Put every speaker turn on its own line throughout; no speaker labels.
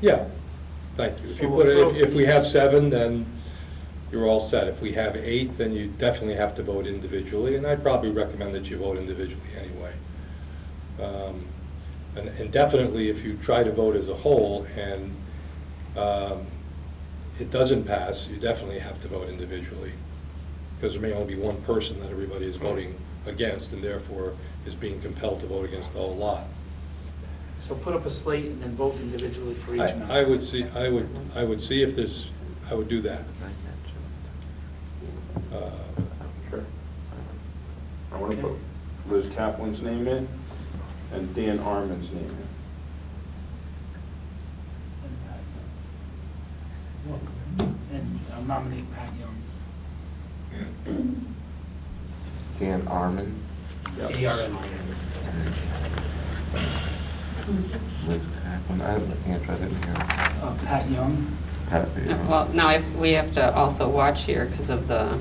Yeah, thank you. If you
So
put, it-
we'll-
if, if we have seven, then you're all set. If we have eight, then you definitely have to vote individually, and I'd probably recommend that you vote individually anyway. Um, And and definitely, if you try to vote as a whole and um, it doesn't pass, you definitely have to vote individually, because there may only be one person that everybody is voting against, and therefore is being compelled to vote against the whole lot.
So put up a slate and then vote individually for each member.
I I would see, I would, I would see if there's, I would do that. Uh,
Sure. I want to put Liz Kaplan's name in and Dan Arman's name in.
And I'll nominate Pat Young,
Dan Arman.
A-R-M-I-N.
Liz Kaplan. I have my hand, I didn't hear.
Uh, Pat Young,
Pat, you know.
Uh, Well, now, if- we have to also watch here because of the,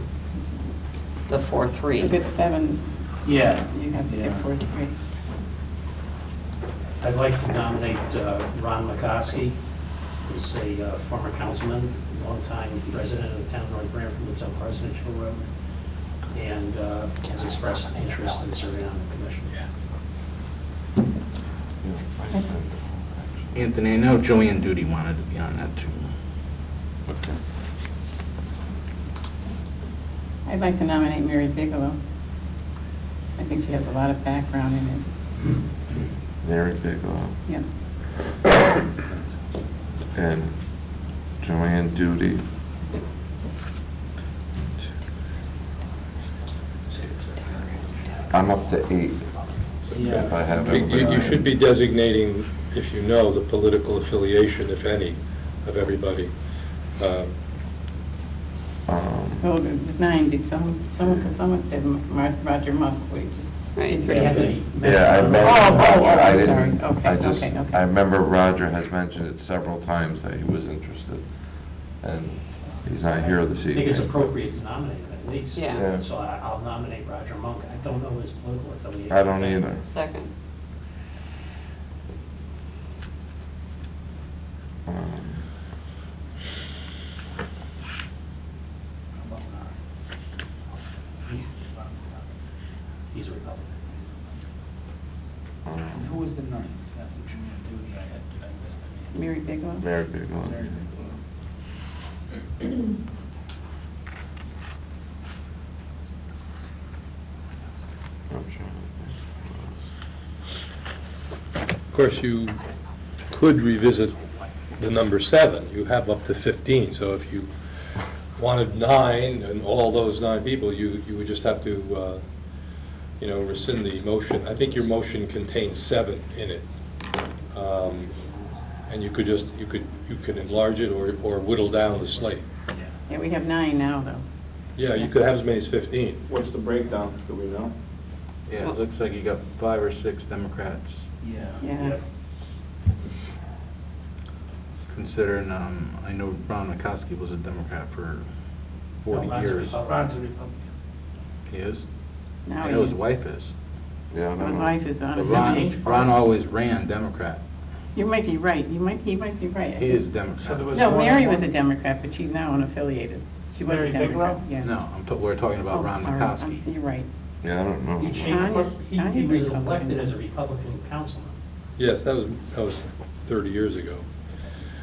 the
If it's
4-3.
seven,
yeah.
you have to get
Yeah.
four, three.
I'd like to nominate uh, Ron McCoskey, who's a uh, former councilman, longtime resident of the town of North Branford, lives on Parsonage Hill Road, and uh, has expressed interest in serving on the commission.
Anthony, I know Joanne Duty wanted to be on that too.
I'd like to nominate Mary Bigelow. I think she has a lot of background in it.
Mary Bigelow
Yeah,
and Joanne Duty. I'm up to eight. If I have
You, you- you
everybody.
should be designating, if you know, the political affiliation, if any, of everybody. Um,
Um,
well, oh, it was nine, did someone, someone, someone said Mar- Roger Muckwich.
Right,
He has
three.
a-
Yeah, I remember.
Oh, oh, oh,
I
I'm
didn't-
sorry. Okay,
I just-
okay, okay.
I remember Roger has mentioned it several times that he was interested, and he's not here this
I
evening.
think it's appropriate to nominate him at least.
Yeah.
Yeah.
So I- I'll nominate Roger Monk. I don't know his political affiliation.
I don't either.
Second.
Um,
He's a Republican.
And
um,
who was the ninth after Joanne Duty? I had, I missed the name.
Mary Bigelow?
Mary Bigelow.
Mary Bigelow.
I'm sure.
Of course, you could revisit the number seven. You have up to 15, so if you wanted nine and all those nine people, you, you would just have to, uh, you know, rescind the motion. I think your motion contains seven in it. Um, And you could just, you could, you could enlarge it or or whittle down the slate.
Yeah, we have nine now, though.
Yeah, you could have as many as 15.
What's the breakdown? Do we know?
Yeah, it looks like you got five or six Democrats,
Yeah.
Yeah.
considering, um, I know Ron McCoskey was a Democrat for
No,
40
Ron's a
years.
Repu- Ron's a Republican.
He is?
Now
I
he
know his
is.
wife is.
Yeah, I don't
His
know.
wife is on
But
it.
Ron, Ron always ran Democrat.
You might be right, you might, he might be right. I
He is
think-
So there
Democrat.
was
No,
one-
Mary was a Democrat, but she's now unaffiliated. She was
Mary
a Democrat,
Bigelow?
yeah.
No, I'm, ta- we're talking
Oh,
about Ron
sorry,
McCoskey.
I'm- You're right.
Yeah, I don't know.
He
Ron
changed,
is-
he
Ron
he
is
was
Republican.
elected as a Republican councilman.
Yes, that was, that was 30 years ago.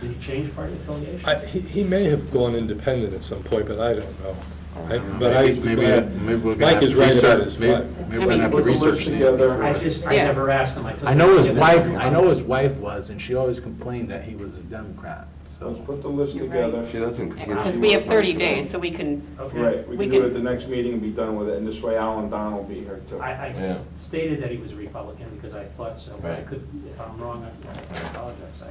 Did he change party affiliation?
I- He he may have gone independent at some point, but I don't know.
Oh,
I- But I,
Maybe- Maybe, maybe we're gonna
Mike
have
is
to
right about
research,
his
maybe
wife.
maybe we're gonna have to
Put the list
research. these.
together.
I just, I
Yeah.
never asked him. I took.
I know his
Yeah,
wife,
that's-
I know his wife was, and she always complained that he was a Democrat,
Let's
so.
put the list
You're right.
together.
She doesn't.
Because we have 30 days, so we can,
Okay.
Right, we
We
can do it
can-
at the next meeting and be done with it, and this way Alan Don will be here too.
I, I s-
Yeah.
stated that he was a Republican because I thought so, but I
Right.
could, if I'm wrong, I I apologize, I, I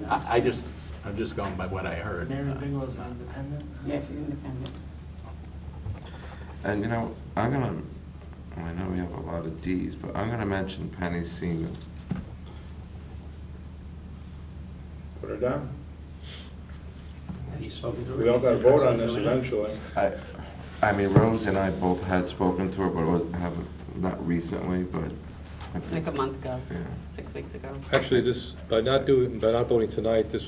did not.
I, I just, I'm just going by what I heard.
Mary Bigelow's not independent?
Yeah, she's independent.
And you know, I'm gonna, I know we have a lot of Ds, but I'm gonna mention Penny Seaman.
Put her down.
Have you spoken to her?
We all
She's
got to vote
interested
on
in
this
doing it?
eventually.
I, I mean, Rose and I both had spoken to her, but it was, haven't, not recently, but. I
like
think-
a month ago,
Yeah.
six weeks ago.
Actually, this, by not doing, by not voting tonight, this